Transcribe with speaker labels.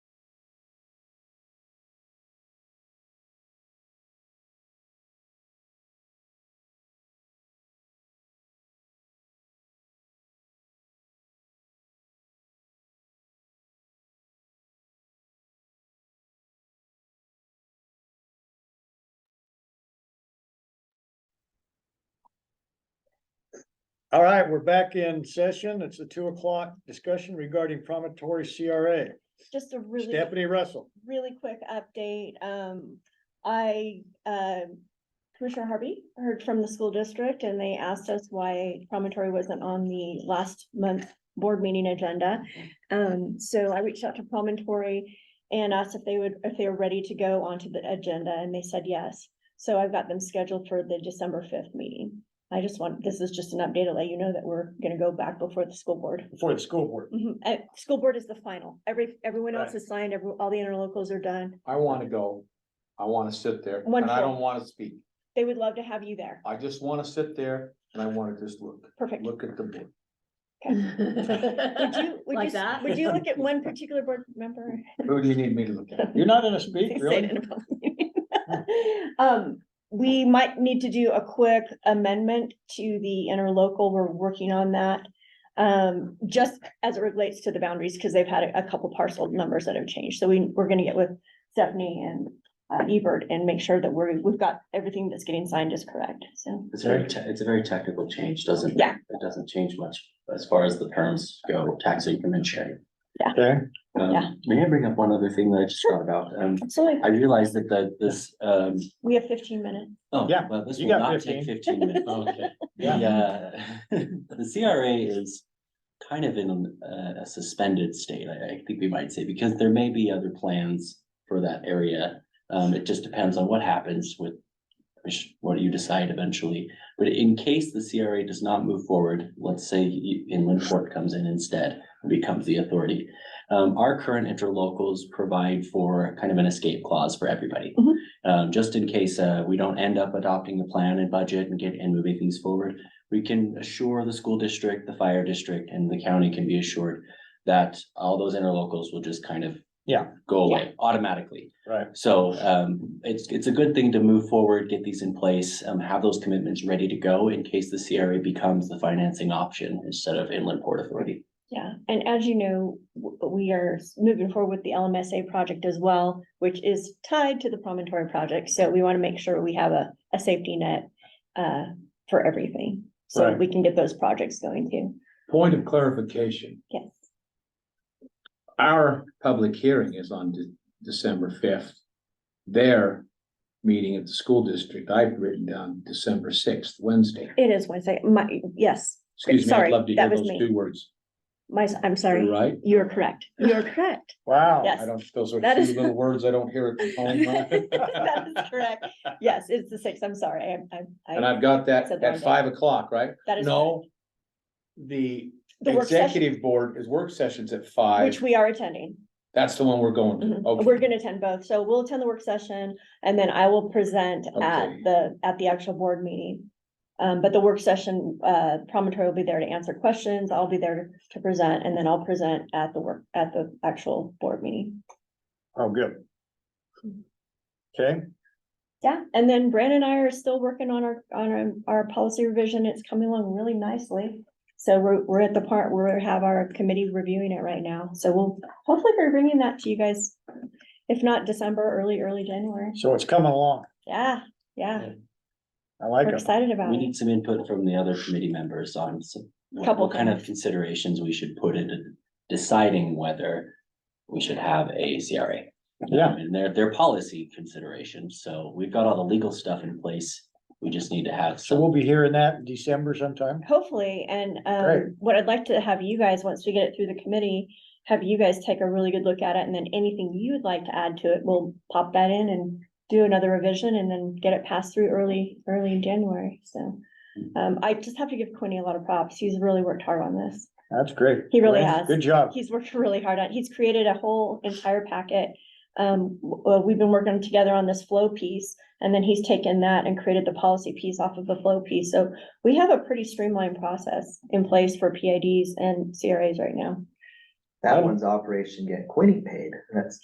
Speaker 1: All right, we're back in session. It's the two o'clock discussion regarding promontory CRA.
Speaker 2: Just a really,
Speaker 1: Stephanie Russell.
Speaker 2: really quick update. Um, I, um Commissioner Harvey heard from the school district and they asked us why promontory wasn't on the last month board meeting agenda. Um, so I reached out to promontory and asked if they would, if they were ready to go onto the agenda and they said yes. So I've got them scheduled for the December fifth meeting. I just want, this is just an update to let you know that we're gonna go back before the school board.
Speaker 1: For the school board.
Speaker 2: Mhm. Uh, school board is the final. Every, everyone else
Speaker 1: Right.
Speaker 2: is signed, every, all the interlocals are done.
Speaker 3: I wanna go, I wanna sit there, and I
Speaker 2: Wonderful.
Speaker 3: don't wanna speak,
Speaker 2: They would love to have you there.
Speaker 3: I just wanna sit there and I wanna just look,
Speaker 2: Perfect.
Speaker 3: look at the board.
Speaker 2: Would you, would you,
Speaker 4: Like
Speaker 2: s-
Speaker 4: that?
Speaker 2: would you look at one particular board member?
Speaker 3: Who do you need me to look at?
Speaker 1: You're not gonna speak,
Speaker 2: Say it
Speaker 1: really?
Speaker 2: in a public meeting. Um, we might need to do a quick amendment to the interlocal. We're working on that. Um, just as it relates to the boundaries, because they've had a, a couple parcel numbers that have changed. So we, we're gonna get with Stephanie and uh, Ebert and make sure that we're, we've got everything that's getting signed is correct, so.
Speaker 5: It's very, te- it's a very technical change, doesn't?
Speaker 2: Yeah.
Speaker 5: It doesn't change much as far as the terms go, tax increment sharing.
Speaker 1: Okay.
Speaker 5: Um,
Speaker 2: Yeah.
Speaker 5: May I bring up one other thing that I just thought about? Um,
Speaker 2: Absolutely.
Speaker 5: I realized that the, this, um,
Speaker 2: We have fifteen minutes.
Speaker 5: oh,
Speaker 1: Yeah,
Speaker 5: well, this
Speaker 1: you
Speaker 5: will
Speaker 1: got
Speaker 5: not take
Speaker 1: 15.
Speaker 5: fifteen minutes. Oh,
Speaker 3: Okay.
Speaker 5: Yeah, uh, the CRA is kind of in uh, a a suspended state, I, I think we might say, because there may be other plans for that area. Um, it just depends on what happens with, which- what you decide eventually. But in case the CRA does not move forward, let's say you- Inland Port comes in instead and becomes the authority. Um, our current interlocals provide for kind of an escape clause for everybody.
Speaker 2: Mhm.
Speaker 5: Um, just in case, uh, we don't end up adopting the plan and budget and get, and moving things forward. We can assure the school district, the fire district, and the county can be assured that all those interlocals will just kind of.
Speaker 1: Yeah.
Speaker 5: Go away automatically.
Speaker 1: Right.
Speaker 5: So um, it's, it's a good thing to move forward, get these in place, um, have those commitments ready to go in case the CRA becomes the financing option instead of inland port authority.
Speaker 2: Yeah, and as you know, w- we are s- moving forward with the LMSA project as well, which is tied to the promontory project, so we want to make sure we have a, a safety net uh, for everything, so
Speaker 1: Right.
Speaker 2: we can get those projects going too.
Speaker 3: Point of clarification,
Speaker 2: Yes,
Speaker 3: our public hearing is on De- December fifth. Their meeting at the school district, I've written down December sixth, Wednesday.
Speaker 2: it is Wednesday, my, yes,
Speaker 3: Excuse me,
Speaker 2: Sorry,
Speaker 3: I'd love to
Speaker 2: that
Speaker 3: hear
Speaker 2: was
Speaker 3: those
Speaker 2: me.
Speaker 3: two words,
Speaker 2: my, I'm sorry,
Speaker 3: right?
Speaker 2: you're correct, you're correct.
Speaker 1: Wow.
Speaker 2: Yes.
Speaker 3: I don't, those are
Speaker 2: That
Speaker 3: two
Speaker 2: is-
Speaker 3: little words I don't hear at the home.
Speaker 2: That is correct, yes, it's the sixth, I'm sorry, I, I,
Speaker 3: And
Speaker 2: I,
Speaker 3: I've got that
Speaker 2: Said the wrong
Speaker 3: at
Speaker 2: day.
Speaker 3: five o'clock, right?
Speaker 2: that is.
Speaker 3: No. The
Speaker 2: The work session,
Speaker 3: executive board is work sessions at five.
Speaker 2: which we are attending.
Speaker 3: That's the one we're going
Speaker 2: Mhm.
Speaker 3: to. Okay.
Speaker 2: We're gonna attend both, so we'll attend the work session and then I will present
Speaker 3: Okay.
Speaker 2: at the, at the actual board meeting. Um, but the work session, uh, promontory will be there to answer questions, I'll be there to present, and then I'll present at the work, at the actual board meeting.
Speaker 1: Oh, good. Okay,
Speaker 2: Yeah, and then Brandon and I are still working on our, on our, our policy revision, it's coming along really nicely. So we're, we're at the part where we have our committee reviewing it right now, so we'll hopefully be bringing that to you guys. If not December, early, early January,
Speaker 1: so it's coming along.
Speaker 2: yeah, yeah.
Speaker 1: I like
Speaker 2: We're
Speaker 1: it.
Speaker 2: excited about
Speaker 5: We
Speaker 2: it.
Speaker 5: need some input from the other committee members on some, what
Speaker 2: Couple
Speaker 5: what kind of considerations we should put into deciding whether we should have a CRA.
Speaker 1: Yeah.
Speaker 5: And their, their policy considerations, so we've got all the legal stuff in place, we just need to have
Speaker 1: So
Speaker 5: some,
Speaker 1: we'll be hearing that in December sometime.
Speaker 2: Hopefully, and um,
Speaker 1: Great.
Speaker 2: what I'd like to have you guys, once we get it through the committee, have you guys take a really good look at it and then anything you would like to add to it, we'll pop that in and do another revision and then get it passed through early, early in January, so. Um, I just have to give Quinny a lot of props. He's really worked hard on this.
Speaker 1: That's great.
Speaker 2: He really
Speaker 1: Great.
Speaker 2: has.
Speaker 1: Good job.
Speaker 2: He's worked really hard on, it. he's created a whole entire packet. Um, w- uh, we've been working together on this flow piece, and then he's taken that and created the policy piece off of the flow piece. So we have a pretty streamlined process in place for PIDs and CRAs right now.
Speaker 6: That one's operation get Quinny paid. That's